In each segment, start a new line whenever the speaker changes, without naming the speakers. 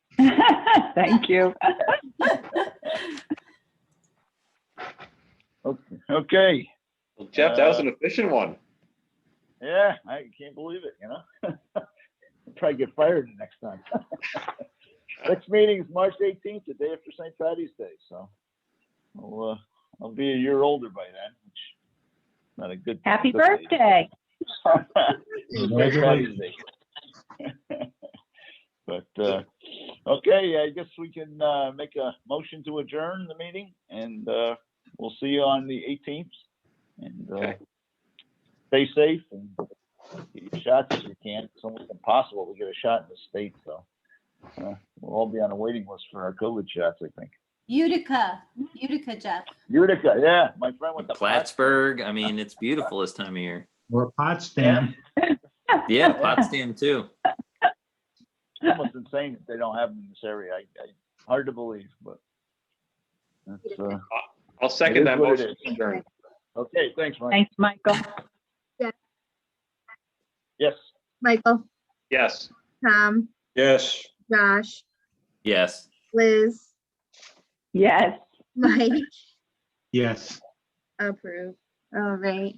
Thank you.
Okay,
Well, Jeff, that
Uh,
was an efficient one.
yeah, I can't believe it, you know? Probably get fired the next time. Next meeting is March eighteenth, the day after St. Patty's Day, so. I'll, uh, I'll be a year older by then, which is not a good.
Happy
good thing.
birthday.
Congratulations.
But, uh, okay, I guess we can, uh, make a motion to adjourn the meeting and, uh, we'll see you on the eighteenth. And, uh,
Okay.
stay safe and get your shots if you can. It's almost impossible to get a shot in the state, so. uh, We'll all be on a waiting list for our COVID shots, I think.
Utica, Utica, Jeff.
Utica, yeah, my friend with the.
Plattsburgh. I mean, it's beautiful this time of year.
Or Potsdam.
Yeah, Potsdam too.
It's almost insane that they don't have them in this area. I, I, hard to believe, but. That's, uh,
I'll
It is
second that
what it
motion.
is.
Adjourn.
okay, thanks, Mike.
Thanks, Michael.
Yes.
Michael,
Yes.
Tom,
Yes.
Josh,
Yes.
Liz,
Yes.
Mike,
Yes.
approve. All right.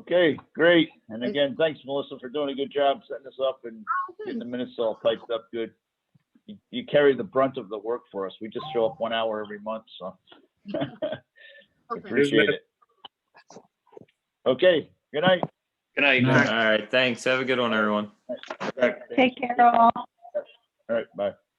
Okay, great. And again, thanks Melissa for doing a good job setting us up and getting the minutes all typed up good. You- You carry the brunt of the work for us. We just show up one hour every month, so. Appreciate it. Okay, good night.
Good night.
Good
All right. Thanks. Have a good one, everyone.
Take care all.
All right, bye.